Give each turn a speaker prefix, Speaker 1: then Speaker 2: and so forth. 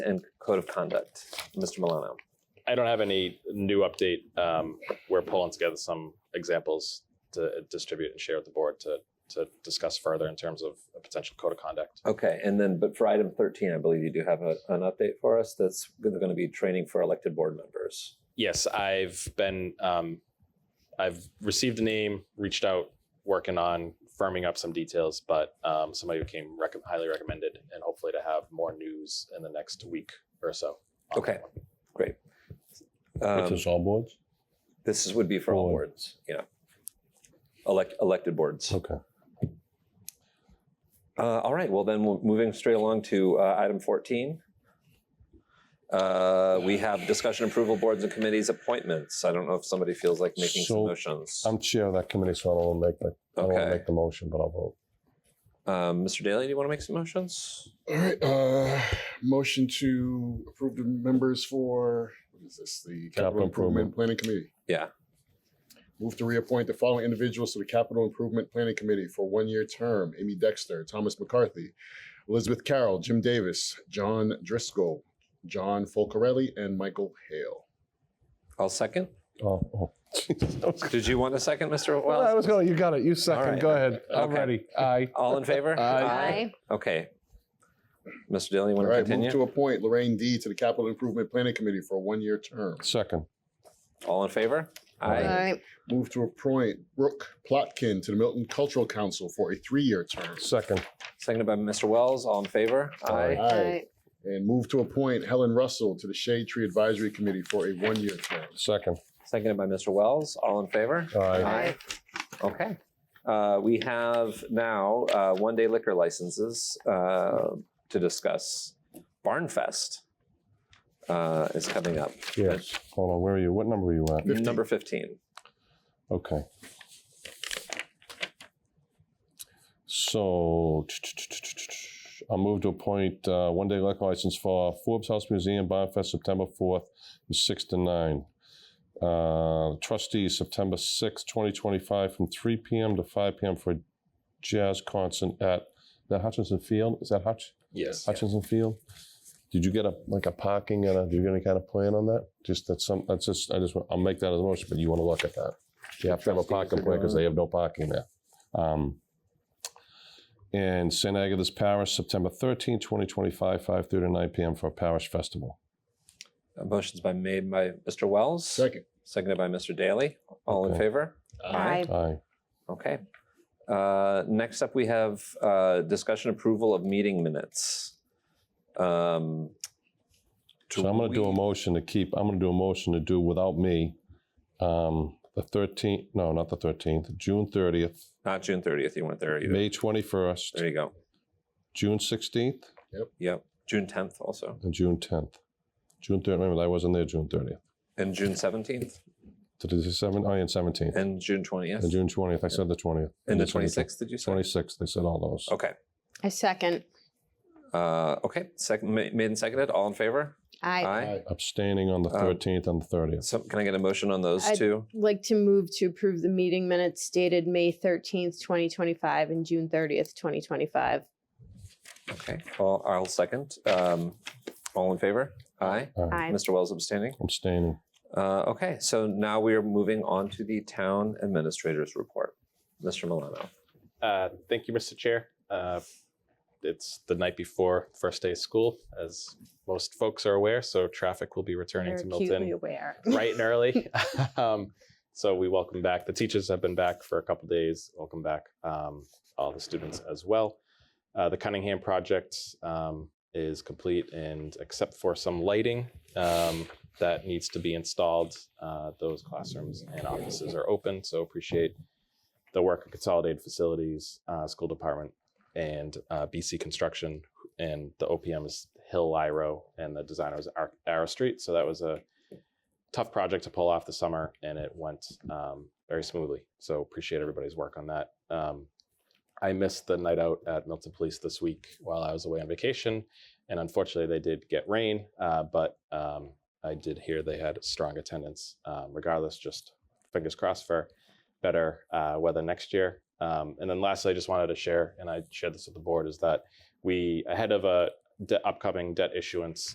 Speaker 1: and code of conduct. Mr. Milano.
Speaker 2: I don't have any new update. Um, we're pulling together some examples to distribute and share with the board to to discuss further in terms of a potential code of conduct.
Speaker 1: Okay, and then, but for item 13, I believe you do have a, an update for us that's going to be training for elected board members.
Speaker 2: Yes, I've been um, I've received a name, reached out, working on firming up some details, but um, somebody who came rec- highly recommended, and hopefully to have more news in the next week or so. on that
Speaker 1: Okay.
Speaker 2: one.
Speaker 1: Um,
Speaker 3: What's this, all boards?
Speaker 1: this is, would be for all
Speaker 3: Board.
Speaker 1: boards, you know, elect, elected boards.
Speaker 3: Okay.
Speaker 1: Uh, all right. Well, then we're moving straight along to uh, item 14. Uh, we have discussion approval boards and committees appointments. I don't know if somebody feels like making some
Speaker 3: So, um,
Speaker 1: motions.
Speaker 3: I'm chair of that committee, so I don't want to make the, I don't want to
Speaker 1: okay.
Speaker 3: make the motion, but I'll vote.
Speaker 1: Um, Mr. Daly, do you want to make some motions?
Speaker 4: All right, uh, motion to approve the members for, what is this, the Capital
Speaker 3: Capital
Speaker 4: Improvement
Speaker 3: Improvement.
Speaker 4: Planning Committee?
Speaker 1: Yeah.
Speaker 4: Move to reappoint the following individuals to the Capital Improvement Planning Committee for one-year term. Amy Dexter, Thomas McCarthy, Elizabeth Carroll, Jim Davis, John Driscoll, John Folcarelli, and Michael Hale.
Speaker 1: I'll second.
Speaker 3: Oh, oh. Jeez, I was gonna-
Speaker 1: Did you want a second, Mr.
Speaker 3: Well, I
Speaker 1: Wells?
Speaker 3: was going, you got it. You
Speaker 1: All right.
Speaker 3: second. Go ahead. I'm
Speaker 1: Okay.
Speaker 3: ready. Aye.
Speaker 1: All in favor?
Speaker 3: Aye.
Speaker 1: Okay. Mr. Daly, you
Speaker 4: All
Speaker 1: want to
Speaker 4: right, move to
Speaker 1: continue?
Speaker 4: appoint Lorraine D to the Capital Improvement Planning Committee for a one-year term.
Speaker 3: Second.
Speaker 1: All in favor?
Speaker 3: Aye.
Speaker 4: Move to appoint Brooke Plotkin to the Milton Cultural Council for a three-year term.
Speaker 3: Second.
Speaker 1: Seconded by Mr. Wells. All in favor?
Speaker 3: Aye.
Speaker 4: Aye. And move to appoint Helen Russell to the Shade Tree Advisory Committee for a one-year term.
Speaker 3: Second.
Speaker 1: Seconded by Mr. Wells. All in favor?
Speaker 3: Aye.
Speaker 1: Okay. Uh, we have now uh, one day liquor licenses uh, to discuss. Barnfest uh, is coming up.
Speaker 3: Yes. Hold on. Where are you? What number are you at?
Speaker 4: 15.
Speaker 1: Number 15.
Speaker 3: Okay. So I'll move to appoint uh, one day liquor license for Forbes House Museum Bonfest September 4th from 6 to 9. Uh, trustees September 6th, 2025 from 3 p.m. to 5 p.m. for a jazz concert at the Hutchinson Field. Is that Hutch?
Speaker 2: Yes.
Speaker 3: Hutchinson Field. Did you get a like a parking and a? Did you get any kind of plan on that? Just that's some. That's just. I just. want- I'll make that as a motion, but you want to look at that. You have to have a parking plan because they have no parking there. Um, and St. Agatha's Parish, September 13, 2025, 5 to 9 p.m. for a parish festival.
Speaker 1: Uh, Motion's by made by Mr. Wells,
Speaker 4: Second,
Speaker 1: seconded by Mr. Daly. All in
Speaker 3: Okay.
Speaker 1: favor?
Speaker 5: Aye.
Speaker 3: Aye.
Speaker 1: Okay. Uh, Next up, we have uh, discussion approval of meeting minutes. Um,
Speaker 3: So I'm going to do a
Speaker 1: we-
Speaker 3: motion to keep, I'm going to do a motion to do without me, um, the 13th, no, not the 13th, June 30th,
Speaker 1: Not June 30th, you weren't there either.
Speaker 3: May 21st,
Speaker 1: There you go.
Speaker 3: June 16th,
Speaker 1: Yep. June 10th also,
Speaker 3: and June 10th. June 30th, remember, I wasn't there June 30th.
Speaker 1: and June 17th,
Speaker 3: Did I say seven? Oh, yeah, and 17th.
Speaker 1: and June
Speaker 3: And
Speaker 1: 20th,
Speaker 3: June 20th, I said the 20th.
Speaker 1: and the
Speaker 3: They said
Speaker 1: 26th, did you say?
Speaker 3: 26th, they said all those.
Speaker 1: Okay.
Speaker 5: I second.
Speaker 1: Uh, Okay, second, made and seconded, all in favor?
Speaker 5: I
Speaker 4: Aye.
Speaker 3: Abstaining on the
Speaker 1: Um,
Speaker 3: 13th and the 30th.
Speaker 1: So can I get a motion on those
Speaker 5: I-
Speaker 1: two?
Speaker 5: like to move to approve the meeting minutes dated May 13th, 2025 and June 30th, 2025.
Speaker 1: Okay, I'll I'll second. Um, All in favor? Aye.
Speaker 3: Aye.
Speaker 1: Mr. Wells abstaining?
Speaker 3: Abstaining.
Speaker 1: Uh, okay, so now we are moving on to the town administrator's report. Mr. Milano.
Speaker 2: Uh, thank you, Mr. Chair. Uh, it's the night before first day of school, as most folks are aware. So traffic will be returning
Speaker 5: They're
Speaker 2: to Milton
Speaker 5: acutely aware.
Speaker 2: bright and early. um, so we welcome back. The teachers have been back for a couple days. Welcome back um, all the students as well. Uh, the Cunningham project um, is complete, and except for some lighting um, that needs to be installed, uh, those classrooms and offices are open. So appreciate the work of Consolidated Facilities, uh, School Department, and uh, BC Construction, and the OPM is Hill Lyro, and the designer was Ar- Arrow Street. So that was a tough project to pull off the summer and it went um, very smoothly. So appreciate everybody's work on that. Um, I missed the night out at Milton Police this week while I was away on vacation. And unfortunately, they did get rain, uh, but um, I did hear they had strong attendance. Um, regardless, just fingers crossed for better uh, weather next year. Um, and then lastly, I just wanted to share, and I shared this with the board, is that we, ahead of a de- upcoming debt issuance